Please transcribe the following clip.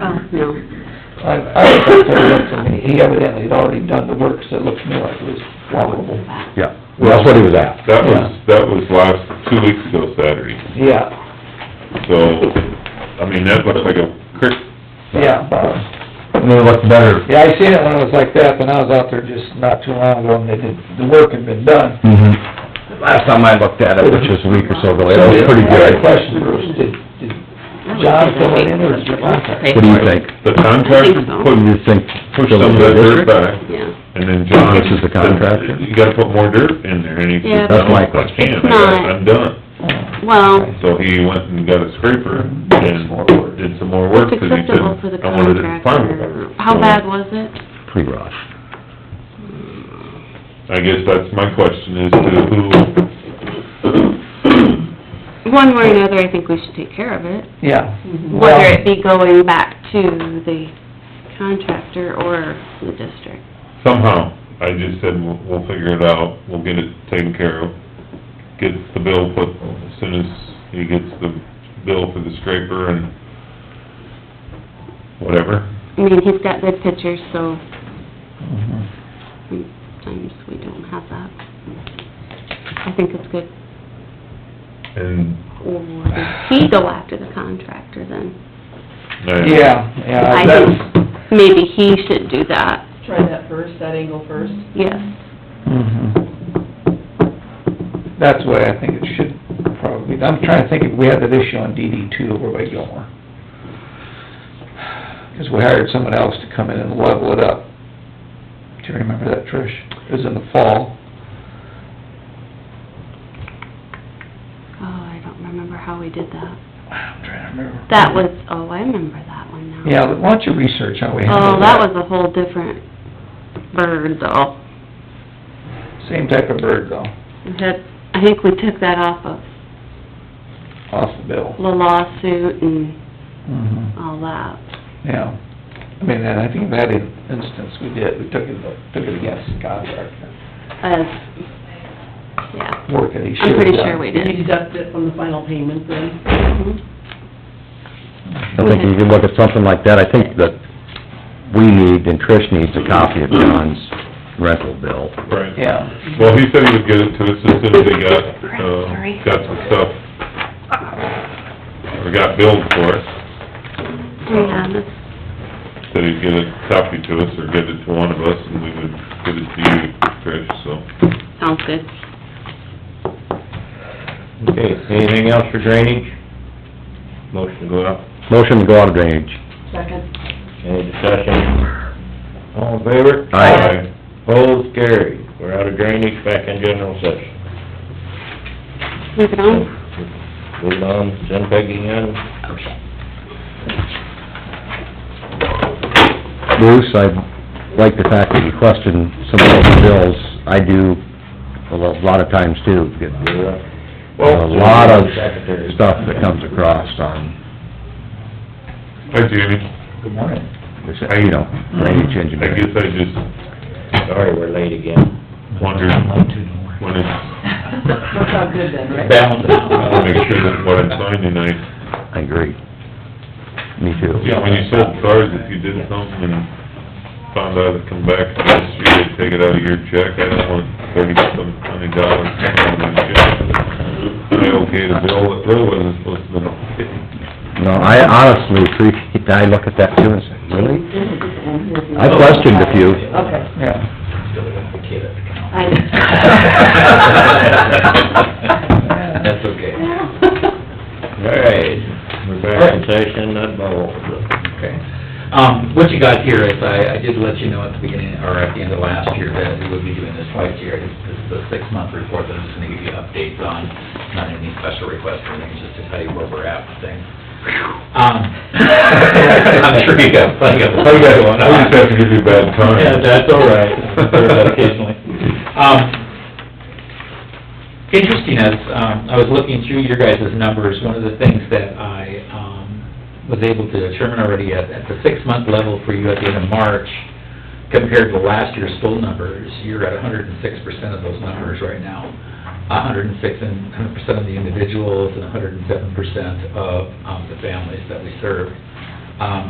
Oh, no. I, I was up there looked and he evidently had already done the work, so it looked to me like it was probable. Yeah, that's what he was at. That was, that was last, two weeks ago Saturday, Yeah, so, I mean, that looks like a creek. yeah, about- And then it looked better. yeah, I seen it when it was like that, when I was out there just not too long ago, and they did, the work had been done. Mhm. Last time I looked at it, which was a week or so ago, it was pretty I had a good. question, Bruce, did, did John fill it in, or did you contact? What do you think? The I contractor think so. What put, do you think? pushed some of that dirt back, Yeah. and then John... This is the contractor? You gotta put more dirt in there, and he Yeah, said, That's no, my I can't, It's I got, not. I'm done. Well, So he went and got a scraper and did some more work, it's 'cause he said, acceptable for the I wanted it farmed better. contractor. How bad was it? Pretty rough. I guess that's my question, is to who, One way or another, I think we should take care of it, Yeah. whether it be going back to the contractor or the district. somehow. I just said, we'll, we'll figure it out, we'll get it taken care of, get the bill put, as soon as he gets the bill for the scraper and whatever. I mean, he's got good pictures, so Mhm. sometimes we don't have that. I think it's good. And Or does he go after the contractor then? I- Yeah, Uh, yeah, I that's, think maybe he should do that, Try that first, that angle first. yes. mhm. that's the way I think it should probably, be. I'm trying to think if we had that issue on DD two over by Gilmore. Cause we hired someone else to come in and level it up. Do you remember that, Trish? It was in the fall. Oh, I don't remember how we did that. I'm trying to remember. That was, oh, I remember that one now. Yeah, why don't you research how we Oh, handled that that? was a whole different bird though. Same type of bird though, We had, I think we took that off of off the bill. the lawsuit and Mhm. all that. Yeah, I mean, and I think in that in- instance, we did, we took it, took it against the contractor, As, yeah, work that he should I'm have done. pretty sure we Did you did. deduct it from the final payment then? I think you could look at something like that. I think that we need, and Trish needs a copy of John's rental bill. Right. Yeah, Well, he said he would get it to us as soon as he got, Crap, uh, sorry. got some stuff, or got billed for it. Yeah, that's- Said he'd get a copy to us, or get it to one of us, and we would get it to you, Trish, so. sounds good. Okay, anything else for drainage? Motion to go out. Motion to go out of drainage. Second. Any discussion? All in favor? Aye. Opposed, carried. We're out of drainage, back in general session. Move it on. Move on, send Peggy in. Bruce, I like the fact that you question some of those bills. I do a lo- lot of times too, get You're up. a lot of uh, Secretary. stuff that comes across on, Hi, Jamie. good morning. uh, you know, drainage I engineering. guess I just Sorry, we're late again. wondered when it's, That's not good then, right? I wanna make sure that what I'm signing, I, I agree. Me too. yeah, when you sold cars, if you did something and found out it come back next year, they take it out of your check, I don't want thirty-some hundred dollars coming out of my check. I okay the bill, it really wasn't supposed to be. No, I honestly appreciate, that. I look at that too and say, really? I questioned a few. Okay. Yeah, That's okay. All right, we're back in session, not bubble. Okay. Um, what you got here is, I, I did let you know at the beginning, or at the end of last year, that we would be doing this twice a year. This this is the six-month report that I'm just gonna give you updates on, not any special requests or anything, just to tell you where we're at with things. Um, I'm sure you got plenty of, plenty going on. I just have to give you a bad time. Yeah, that's all right. I've heard that Occasionally. Um, interesting as, um, I was looking through your guys' numbers, one of the things that I, um, was able to determine already at, at the six-month level for you at the end of March, compared to last year's full numbers, you're at hundred and six percent of those numbers right now. hundred and six and, hundred percent of the individuals and hundred and seven percent of, um, the families that we serve. Um,